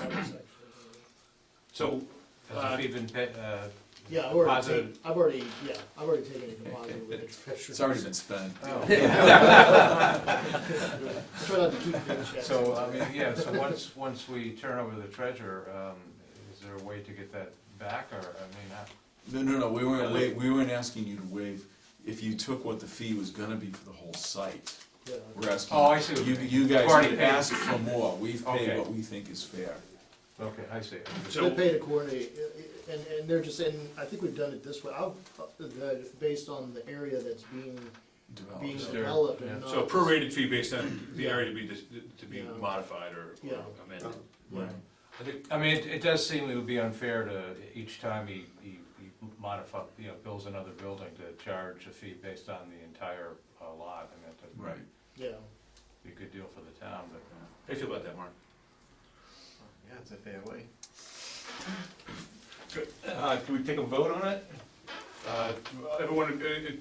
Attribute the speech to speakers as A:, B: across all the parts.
A: Somerset.
B: So, uh,
C: Has it even been, uh,
A: Yeah, I've already,
C: Deposit.
A: ta- I've already, yeah, I've already taken a deposit with the treasurer.
D: It's already been spent.
A: Try not to keep doing checks.
C: so,
B: uh,
C: I mean, yeah, so once, once we turn over the treasure, um, is there a way to get that back, or, I mean, I-
D: No, no, no, we weren't wa- we weren't asking you to waive, if you took what the fee was gonna be for the whole site.
A: Yeah.
D: We're asking.
C: Oh, I see what
D: You,
C: you mean.
D: you
C: We've
D: guys
C: already
D: could
C: paid.
D: ask for more, we've
C: Okay.
D: paid what we think is fair.
C: okay, I see.
A: They
B: so,
A: paid accordingly, and, and they're just, and I think we've done it this way, I'll, the, based on the area that's being,
D: Developed.
A: being
C: Sure.
A: developed
C: Yeah.
A: and not.
B: so a
A: just-
B: prorated fee based on the area to be, dis- to be
A: Yeah.
B: modified or or
A: Yeah.
B: amended.
A: Right.
C: I think- I mean, it, it does seem it would be unfair to, each time he, he he modify, you know, builds another building to charge a fee based on the entire uh, lot, I mean, that
D: Right,
A: Yeah,
C: be a good deal for the town, but.
B: How do you feel about that, Mark?
E: Yeah, it's a fair way.
F: Uh, can we take a vote on it?
B: Uh, Everyone, uh, it-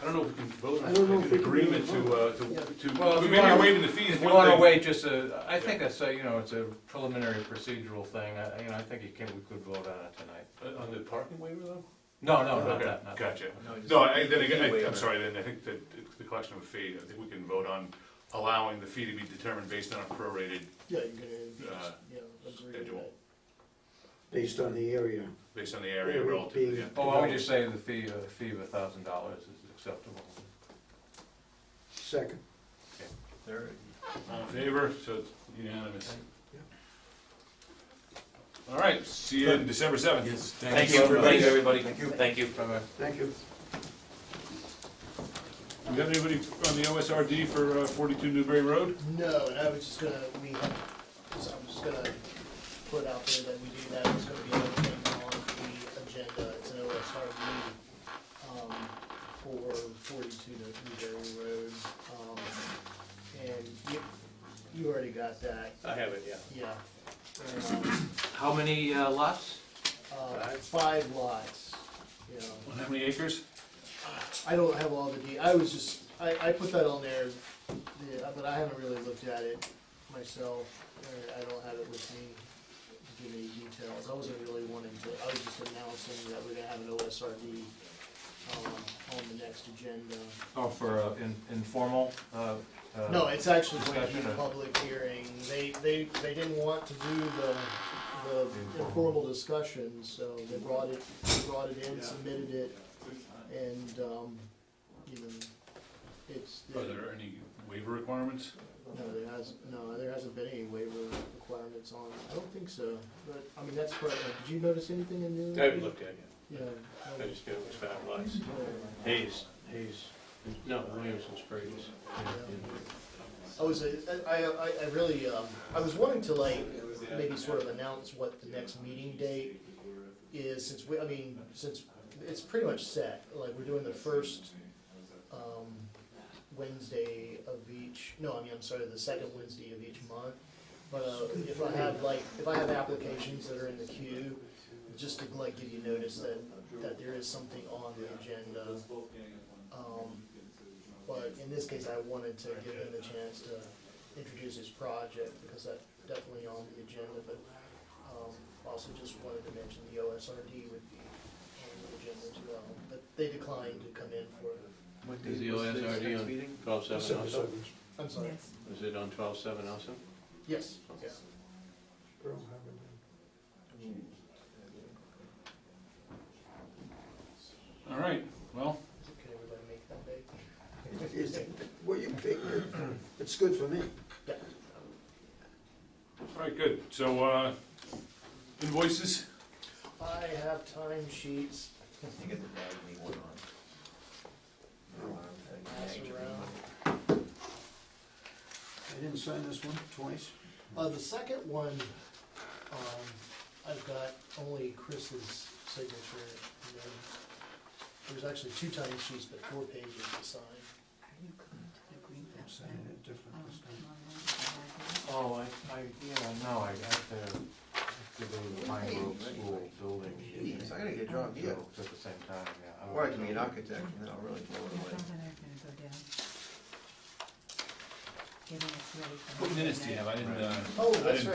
B: I don't know if we can vote
A: I
B: on
A: don't know
B: an
A: if we can
B: agreement
A: vote.
B: to, uh,
A: Yeah.
B: to,
C: Well,
B: to,
C: if
B: we
C: you
B: may be
C: wanna-
B: waiving the fees,
C: If you
B: one
C: wanna
B: thing.
C: wait just a, I think that's a, you know, it's a preliminary procedural thing, I, you know, I think you can, we could vote on it tonight.
B: Uh, On the parking waiver though?
C: No, no, not
B: Okay,
C: that, not that.
B: Gotcha.
E: No, just
B: No, I,
E: the
B: then
E: fee
B: again, I- I'm
E: waiver.
B: sorry, then I think that it- the collection of a fee, I think we can vote on allowing the fee to be determined based on a prorated,
A: yeah, you're gonna,
B: Uh,
A: yeah, agree with
B: schedule.
A: that.
G: based on the area.
B: based on the area
G: Area
B: relative to the.
G: being-
C: Well, why don't we Oh, just say the fee, a fee of a thousand dollars is acceptable?
G: Second.
E: Third.
B: All in favor, so it's unanimous. All right, see you in December seventh.
D: yes,
F: Thank
D: thank
F: you,
D: you.
F: everybody. Everybody. Thank you. Thank you.
C: Bye-bye.
G: Thank you.
B: Do we have anybody on the OSRD for uh, forty-two Newberry Road?
A: No, and I was just gonna, we, so I'm just gonna put out there that we do that, it's gonna be another thing on the agenda, it's an OSRD, um, for forty-two to Newberry Road, um, and you, you already got that,
F: I have it, yeah.
A: yeah. And, um,
C: How many uh, lots?
A: Uh, five lots, you know.
B: How many acres?
A: I don't have all the de, I was just, I, I put that on there, the- but I haven't really looked at it myself, or I don't have it with me to give any details, I wasn't really wanting to, I was just announcing that we're gonna have an OSRD, um, on the next agenda.
C: Oh, for uh, in- informal, uh, uh,
A: No, it's actually going to be
C: discussion
A: a
C: or-
A: public hearing, they, they, they didn't want to do the, the informal discussion, so they brought it, they brought it in, submitted it, and, um, even, it's.
F: Oh,
B: Are there any waiver requirements?
A: No, there has, no, there hasn't been any waiver requirements on, I don't think so, but, I mean, that's part of, it. did you notice anything in new?
F: I haven't looked at it
A: Yeah.
F: yet. I
A: no,
F: just knew it was five lots.
A: no,
F: Hayes, Hayes, no, Williamson Springs.
A: I was, uh, I, I, I really, um, I was wanting to like, maybe sort of announce what the next meeting date is, since we, I mean, since, it's pretty much set, like, we're doing the first, um, Wednesday of each, no, I mean, I'm sorry, the second Wednesday of each month. But, uh, if I have like, if I have applications that are in the queue, just to like give you notice that, that there is something on the agenda. Um, but in this case, I wanted to give him a chance to introduce his project, because that's definitely on the agenda, but, um, also just wanted to mention the OSRD would be on the agenda as well, but they declined to come in for,
F: What
C: Is
F: day
C: the
F: was the
C: OSRD
F: next
C: on-
F: meeting? Twelve seven
G: Seven,
F: also?
G: seven.
A: I'm sorry,
F: Is it on twelve seven
C: oh
F: also?
A: yes, yeah.
G: Earl Hammond.
B: All right, well,
A: Can everybody make that day?
G: Is- Were you big? It's good for me.
A: Yeah.
B: all right, good. So, uh, invoices?
A: I have time sheets.
E: You get the bag, leave one on.
A: Pass around.
G: I didn't sign this one twice.
A: Uh, the second one, um, I've got only Chris's signature. and then There's actually two time sheets, but four pages to sign.
G: I'm signing it different this time.
C: Oh, I, I, yeah, no, I have to, I have to go to the Pine Grove School building.
E: Jeez, I gotta get John Deere.
C: So, At the same time, yeah.
E: Or I can be an architect, and then I'll really blow it away.
B: What minutes do you have? I didn't, uh.
A: Oh,
B: I
A: that's
B: didn't-
A: right.